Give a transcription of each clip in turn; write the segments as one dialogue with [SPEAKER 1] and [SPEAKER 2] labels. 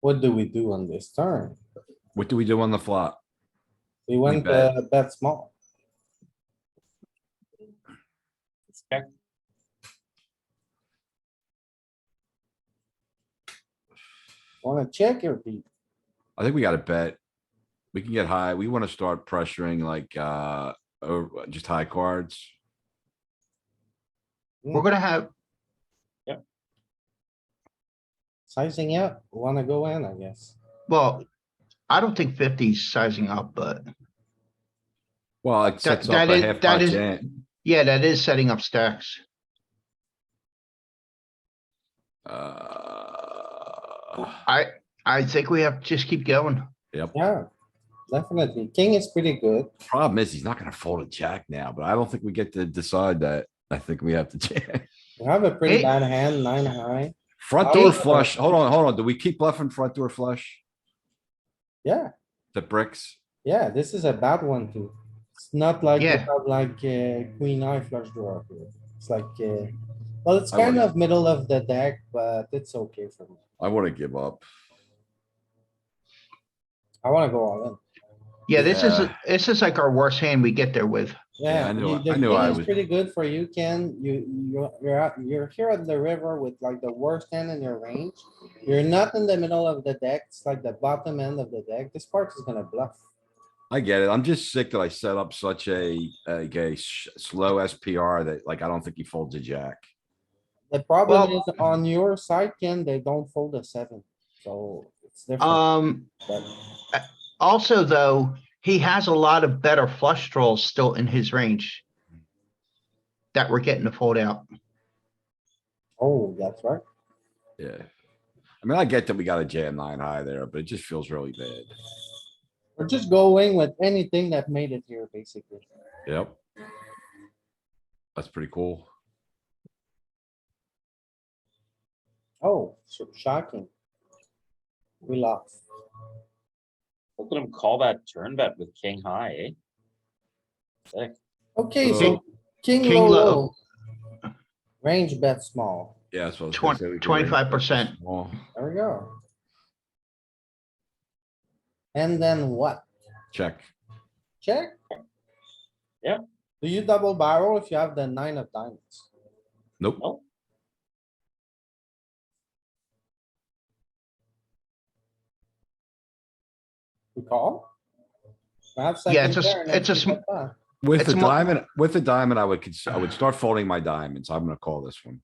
[SPEAKER 1] What do we do on this turn?
[SPEAKER 2] What do we do on the flop?
[SPEAKER 1] We went
[SPEAKER 2] bet.
[SPEAKER 1] uh, bet small.
[SPEAKER 3] Check.
[SPEAKER 1] Wanna check your beat?
[SPEAKER 2] I think we gotta bet. We can get high. We wanna start pressuring like, uh, over, just high cards.
[SPEAKER 4] We're gonna have,
[SPEAKER 1] Sizing up, wanna go in, I guess.
[SPEAKER 4] well, I don't think fifty's sizing up, but
[SPEAKER 2] Well, it sets up
[SPEAKER 4] that
[SPEAKER 2] a
[SPEAKER 4] is-
[SPEAKER 2] half
[SPEAKER 4] that
[SPEAKER 2] pot
[SPEAKER 4] is-
[SPEAKER 2] jam.
[SPEAKER 4] yeah, that is setting up stacks.
[SPEAKER 2] Uh,
[SPEAKER 4] I, I think we have, to just keep going.
[SPEAKER 1] Yeah, definitely. King is pretty good.
[SPEAKER 2] Problem is, he's not gonna fold a jack now, but I don't think we get to decide that. I think we have to jam.
[SPEAKER 1] We have a pretty
[SPEAKER 4] Hey.
[SPEAKER 1] bad hand, nine high.
[SPEAKER 2] Front
[SPEAKER 1] I uh,
[SPEAKER 2] door
[SPEAKER 1] was-
[SPEAKER 2] flush. Hold on, hold on. Do we keep bluffing front door flush?
[SPEAKER 1] Yeah,
[SPEAKER 2] The bricks?
[SPEAKER 1] yeah, this is a bad one too. It's not like, you
[SPEAKER 4] Yeah.
[SPEAKER 1] have like uh, queen eye flush draw. here. It's like, uh, well, it's
[SPEAKER 2] I
[SPEAKER 1] kind
[SPEAKER 2] would-
[SPEAKER 1] of middle of the deck, but it's okay for me.
[SPEAKER 2] I wanna give up.
[SPEAKER 1] I wanna go all in.
[SPEAKER 4] Yeah, this is,
[SPEAKER 2] Yeah.
[SPEAKER 4] this is like our worst hand we get there with.
[SPEAKER 2] Yeah,
[SPEAKER 1] Yeah,
[SPEAKER 2] I
[SPEAKER 1] you-
[SPEAKER 2] knew I-
[SPEAKER 1] the
[SPEAKER 2] I knew
[SPEAKER 1] king
[SPEAKER 2] I
[SPEAKER 1] is
[SPEAKER 2] was-
[SPEAKER 1] pretty good for you, Ken. You, you're, you're, out- you're here at the river with like the worst hand in your range. You're not in the middle of the deck. It's like the bottom end of the deck. This part is gonna bluff.
[SPEAKER 2] I get it. I'm just sick that I set up such a, like a sh- slow SPR that like, I don't think he folds a jack.
[SPEAKER 1] The problem
[SPEAKER 4] Well-
[SPEAKER 1] is on your side, Ken, they don't fold a seven, so it's
[SPEAKER 2] Uh,
[SPEAKER 1] different.
[SPEAKER 4] Um,
[SPEAKER 1] but
[SPEAKER 4] also though, he has a lot of better flush draws still in his range. That we're getting to fold out.
[SPEAKER 1] Oh, that's right.
[SPEAKER 2] Yeah. I mean, I get that we got a jam nine high there, but it just feels really bad.
[SPEAKER 1] We're just going with anything that made it here, basically.
[SPEAKER 2] Yep. That's pretty cool.
[SPEAKER 1] Oh, so shocking. We lost.
[SPEAKER 3] Look at him call that turn bet with king high, eh?
[SPEAKER 1] Okay,
[SPEAKER 2] King-
[SPEAKER 1] so king
[SPEAKER 4] King
[SPEAKER 1] low,
[SPEAKER 4] low.
[SPEAKER 1] low. Range bet small.
[SPEAKER 2] Yeah, that's what I was gonna say.
[SPEAKER 4] Twenty,
[SPEAKER 2] We can raise
[SPEAKER 4] twenty-five percent.
[SPEAKER 2] small.
[SPEAKER 1] There we go. And then what?
[SPEAKER 2] Check.
[SPEAKER 1] Check?
[SPEAKER 3] Yeah.
[SPEAKER 1] Do you double barrel if you have the nine of diamonds?
[SPEAKER 2] Nope.
[SPEAKER 4] Oh,
[SPEAKER 3] Nope.
[SPEAKER 1] We call? Perhaps I
[SPEAKER 4] Yeah,
[SPEAKER 1] can
[SPEAKER 4] it's a s-
[SPEAKER 1] pair and I
[SPEAKER 4] it's a
[SPEAKER 1] can
[SPEAKER 4] sm-
[SPEAKER 1] bet that.
[SPEAKER 2] With
[SPEAKER 4] It's
[SPEAKER 2] the
[SPEAKER 4] mo-
[SPEAKER 2] diamond, with the diamond, I would, cons- I would start folding my diamonds. I'm gonna call this one.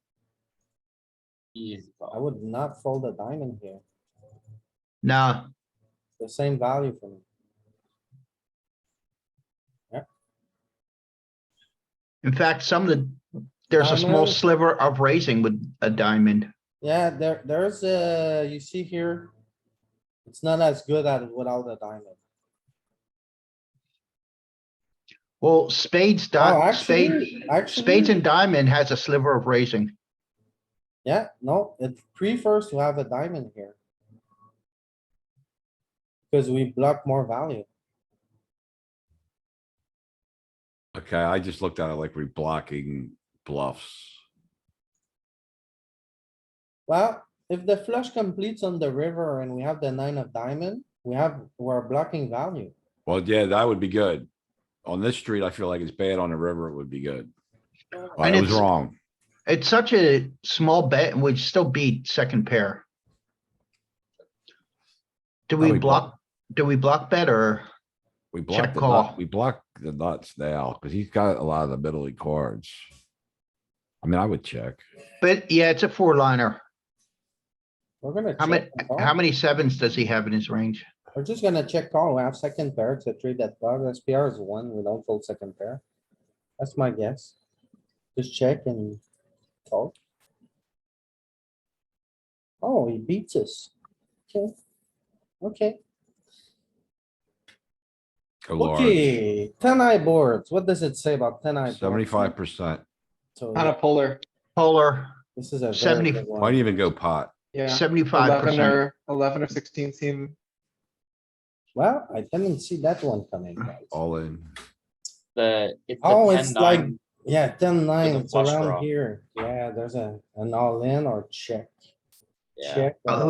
[SPEAKER 3] Easy
[SPEAKER 1] I
[SPEAKER 3] call.
[SPEAKER 1] would not fold a diamond here.
[SPEAKER 4] Nah,
[SPEAKER 1] The same value for me.
[SPEAKER 4] in fact, some of the, there's a small
[SPEAKER 1] Diamond.
[SPEAKER 4] sliver of raising with a diamond.
[SPEAKER 1] Yeah, there, there's a, you see here. It's not as good at without a diamond.
[SPEAKER 4] Well, spades,
[SPEAKER 1] Oh,
[SPEAKER 4] di- spade,
[SPEAKER 1] actually,
[SPEAKER 4] spades
[SPEAKER 1] actually,
[SPEAKER 4] and diamond has a sliver of raising.
[SPEAKER 1] yeah, no, it prefers to have a diamond here. Cause we block more value.
[SPEAKER 2] Okay, I just looked at it like we're blocking bluffs.
[SPEAKER 1] Well, if the flush completes on the river and we have the nine of diamond, we have, we're blocking value.
[SPEAKER 2] Well, yeah, that would be good. On this street, I feel like it's bad. On the river, it would be good. I
[SPEAKER 4] And
[SPEAKER 2] was
[SPEAKER 4] it's-
[SPEAKER 2] wrong.
[SPEAKER 4] It's such a small bet and we'd still beat second pair. Do
[SPEAKER 2] No,
[SPEAKER 4] we
[SPEAKER 2] we block-
[SPEAKER 4] block, do we block bet or?
[SPEAKER 2] We blocked
[SPEAKER 4] check
[SPEAKER 2] the nut,
[SPEAKER 4] call.
[SPEAKER 2] we blocked the nuts now because he's got a lot of the middle league cards. I mean, I would check.
[SPEAKER 4] But yeah, it's a four liner.
[SPEAKER 1] We're gonna.
[SPEAKER 4] How many,
[SPEAKER 1] check and call.
[SPEAKER 4] how many sevens does he have in his range?
[SPEAKER 1] We're just gonna check call. We have second pair. It's a three that bug. SPR is one. We don't fold second pair. That's my guess. Just check and call. Oh, he beats us. Okay. Okay,
[SPEAKER 2] Go large.
[SPEAKER 1] okay. Ten eye boards. What does it say about ten eye? boards?
[SPEAKER 2] Seventy-five percent.
[SPEAKER 1] So
[SPEAKER 5] On a polar,
[SPEAKER 4] Polar,
[SPEAKER 1] this is a. very
[SPEAKER 4] 70
[SPEAKER 1] good one.
[SPEAKER 2] Might even go pot.
[SPEAKER 5] yeah,
[SPEAKER 4] seventy-five
[SPEAKER 5] eleven
[SPEAKER 4] percent.
[SPEAKER 5] or, eleven or sixteen seem,
[SPEAKER 1] Well, I didn't see that one coming. guys.
[SPEAKER 2] All in.
[SPEAKER 3] The, it's
[SPEAKER 1] Oh,
[SPEAKER 3] the
[SPEAKER 1] it's
[SPEAKER 3] ten
[SPEAKER 1] like-
[SPEAKER 3] nine,
[SPEAKER 1] Yeah, ten nine.
[SPEAKER 3] With a
[SPEAKER 1] It's
[SPEAKER 3] flush
[SPEAKER 1] around
[SPEAKER 3] draw.
[SPEAKER 1] here. Yeah, there's a, an all in or check.
[SPEAKER 3] yeah.
[SPEAKER 1] Check.
[SPEAKER 4] Oh,